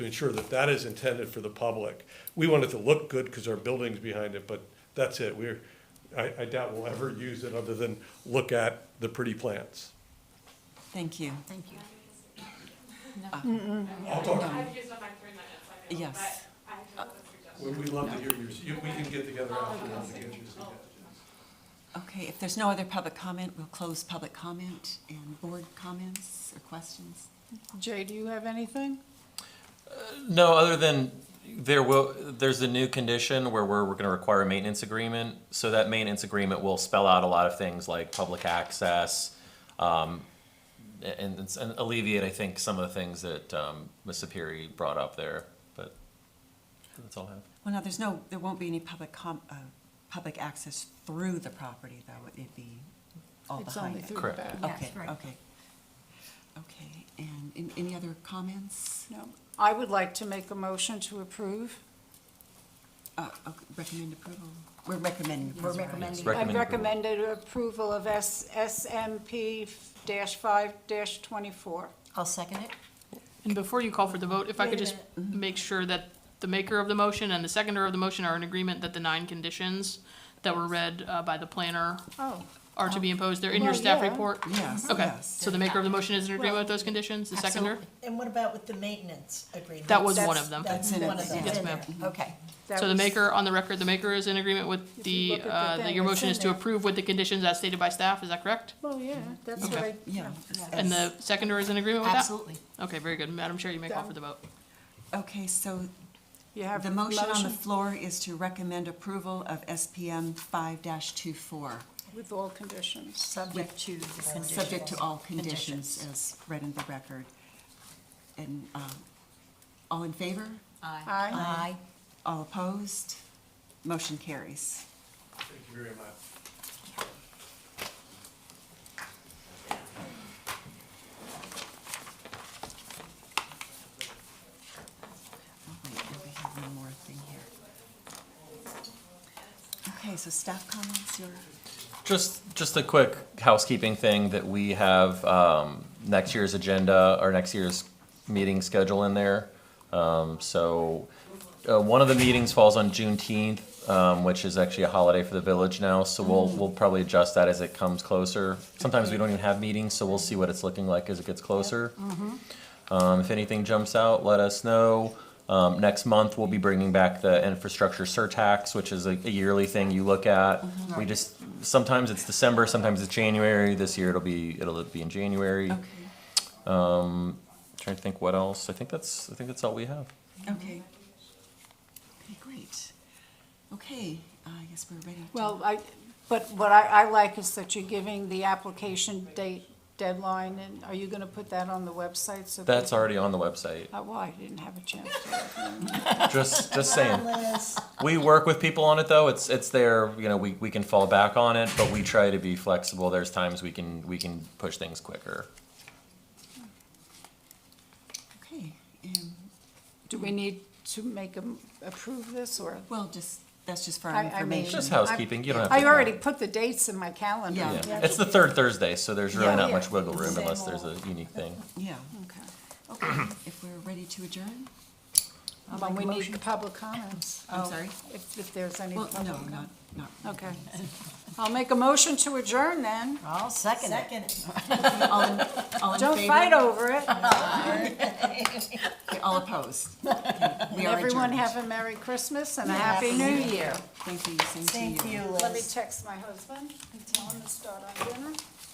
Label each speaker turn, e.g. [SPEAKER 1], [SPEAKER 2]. [SPEAKER 1] to ensure that that is intended for the public. We want it to look good because our building's behind it, but that's it. We're, I, I doubt we'll ever use it other than look at the pretty plants.
[SPEAKER 2] Thank you.
[SPEAKER 3] Thank you.
[SPEAKER 1] I'll talk,
[SPEAKER 4] I've used up my three minutes, I know,
[SPEAKER 2] Yes.
[SPEAKER 4] but I have a suggestion.
[SPEAKER 1] we we love to hear yours. You- We can get together afterwards and get your suggestions.
[SPEAKER 2] Okay, if there's no other public comment, we'll close public comment and board comments or questions.
[SPEAKER 3] Jay, do you have anything?
[SPEAKER 5] No, other than there will, there's a new condition where we're, we're gonna require a maintenance agreement. So that maintenance agreement will spell out a lot of things like public access, um, and, and- and alleviate, I think, some of the things that, um, Ms. Sapiri brought up there, but that's all I have.
[SPEAKER 2] Well, no, there's no, there won't be any public com, uh, public access through the property, though. It'd be all
[SPEAKER 3] It's only
[SPEAKER 2] behind it.
[SPEAKER 3] through the
[SPEAKER 5] Correct.
[SPEAKER 3] back.
[SPEAKER 2] Okay,
[SPEAKER 3] Yes, right.
[SPEAKER 2] okay. Okay, and an- any other comments?
[SPEAKER 3] No. I would like to make a motion to approve.
[SPEAKER 2] Uh, okay, recommend approval. We're recommending. approval, right?
[SPEAKER 5] recommending.
[SPEAKER 3] I
[SPEAKER 5] Recommend approval.
[SPEAKER 3] recommended approval of S- SMP dash five dash twenty-four.
[SPEAKER 6] I'll second it.
[SPEAKER 7] And before you call for the vote, if I could just
[SPEAKER 3] Mm-hmm.
[SPEAKER 7] make sure that the maker of the motion and the seconder of the motion are in agreement that the nine conditions that were read uh, by the planner
[SPEAKER 3] Oh,
[SPEAKER 7] are to be imposed. They're in your
[SPEAKER 3] Well,
[SPEAKER 7] staff
[SPEAKER 3] yeah.
[SPEAKER 7] report?
[SPEAKER 2] Yes,
[SPEAKER 7] Okay,
[SPEAKER 2] yes.
[SPEAKER 7] so the maker of the motion is in agreement with those conditions, the seconder?
[SPEAKER 6] Absolutely. And what about with the maintenance agreement?
[SPEAKER 7] That was
[SPEAKER 6] That's-
[SPEAKER 7] one of them.
[SPEAKER 6] That's
[SPEAKER 2] That's in
[SPEAKER 6] one
[SPEAKER 2] it,
[SPEAKER 6] of them.
[SPEAKER 2] yes,
[SPEAKER 6] in
[SPEAKER 7] ma'am.
[SPEAKER 6] there. Okay.
[SPEAKER 3] that
[SPEAKER 7] So the
[SPEAKER 3] was-
[SPEAKER 7] maker, on the record, the maker is in agreement with
[SPEAKER 3] If you
[SPEAKER 7] the,
[SPEAKER 3] look at the
[SPEAKER 7] uh, that
[SPEAKER 3] thing,
[SPEAKER 7] your
[SPEAKER 3] it's
[SPEAKER 7] motion
[SPEAKER 3] in
[SPEAKER 7] is to
[SPEAKER 3] there.
[SPEAKER 7] approve with the conditions as stated by staff, is that correct?
[SPEAKER 3] Well, yeah, that's
[SPEAKER 7] Okay.
[SPEAKER 3] what I.
[SPEAKER 2] Yeah.
[SPEAKER 7] And the seconder is in agreement with that?
[SPEAKER 6] Absolutely.
[SPEAKER 7] Okay, very good. Madam Chair, you may call for the vote.
[SPEAKER 2] Okay, so
[SPEAKER 3] You have
[SPEAKER 2] The
[SPEAKER 3] a
[SPEAKER 2] motion on the
[SPEAKER 3] motion
[SPEAKER 2] floor is to recommend approval of SPM five 24
[SPEAKER 3] with all conditions.
[SPEAKER 6] Subject to the conditions.
[SPEAKER 2] subject to all conditions as read in the record. And, um, all in favor?
[SPEAKER 6] Aye.
[SPEAKER 3] Aye.
[SPEAKER 6] Aye.
[SPEAKER 2] All opposed? Motion carries.
[SPEAKER 1] Thank you very much.
[SPEAKER 2] Oh, wait, no, we have one more thing here. Okay, so staff comments, your,
[SPEAKER 5] Just, just a quick housekeeping thing that we have, um, next year's agenda, or next year's meeting schedule in there. Um, so, uh, one of the meetings falls on Juneteenth, um, which is actually a holiday for the village now, so we'll, we'll probably adjust that as it comes closer. Sometimes we don't even have meetings, so we'll see what it's looking like as it gets closer. Um, if anything jumps out, let us know. Um, next month, we'll be bringing back the infrastructure surtax, which is a, a yearly thing you look at. We just, sometimes it's December, sometimes it's January. This year it'll be, it'll be in January.
[SPEAKER 2] okay,
[SPEAKER 5] Trying to think what else. I think that's, I think that's all we have.
[SPEAKER 2] okay. Okay, great. Okay, I guess we're ready to.
[SPEAKER 3] Well, I, but what I, I like is that you're giving the application date deadline, and are you gonna put that on the website so?
[SPEAKER 5] That's
[SPEAKER 3] people-
[SPEAKER 5] already on the website.
[SPEAKER 3] Oh, well, I didn't have a chance to.
[SPEAKER 5] Just, just saying.
[SPEAKER 6] Liz,
[SPEAKER 5] We work with people on it though. It's, it's there, you know, we, we can fall back on it, but we try to be flexible. There's times we can, we can push things quicker.
[SPEAKER 2] Okay, um,
[SPEAKER 3] Do we need to make them approve this, or?
[SPEAKER 2] well, just, that's just for
[SPEAKER 3] I- I
[SPEAKER 2] our
[SPEAKER 3] mean-
[SPEAKER 2] information.
[SPEAKER 5] Just housekeeping. You don't have to.
[SPEAKER 3] I already put the dates in my calendar.
[SPEAKER 2] Yeah.
[SPEAKER 5] Yeah, it's the third Thursday, so there's really
[SPEAKER 3] Yeah.
[SPEAKER 5] not much wiggle room
[SPEAKER 6] Same
[SPEAKER 5] unless there's a
[SPEAKER 6] old.
[SPEAKER 5] unique thing.
[SPEAKER 2] Yeah,
[SPEAKER 3] Okay.
[SPEAKER 2] okay, if we're ready to adjourn? I'll
[SPEAKER 3] But
[SPEAKER 2] make
[SPEAKER 3] we
[SPEAKER 2] a
[SPEAKER 3] need
[SPEAKER 2] motion.
[SPEAKER 3] the public comments.
[SPEAKER 2] I'm
[SPEAKER 3] Oh,
[SPEAKER 2] sorry?
[SPEAKER 3] If, if there's any
[SPEAKER 2] Well,
[SPEAKER 3] public
[SPEAKER 2] no, not,
[SPEAKER 3] comment.
[SPEAKER 2] not.
[SPEAKER 3] Okay. I'll make a motion to adjourn then.
[SPEAKER 6] I'll second it. Second
[SPEAKER 2] All in, all in
[SPEAKER 3] Don't
[SPEAKER 2] favor?
[SPEAKER 3] fight over it.
[SPEAKER 2] Okay, All opposed. We are
[SPEAKER 3] Everyone
[SPEAKER 2] adjourned.
[SPEAKER 3] have a Merry Christmas and a Happy New Year.
[SPEAKER 2] Thank you, same to
[SPEAKER 6] Thank you, Liz.
[SPEAKER 3] Let me text my husband, tell him to start on dinner.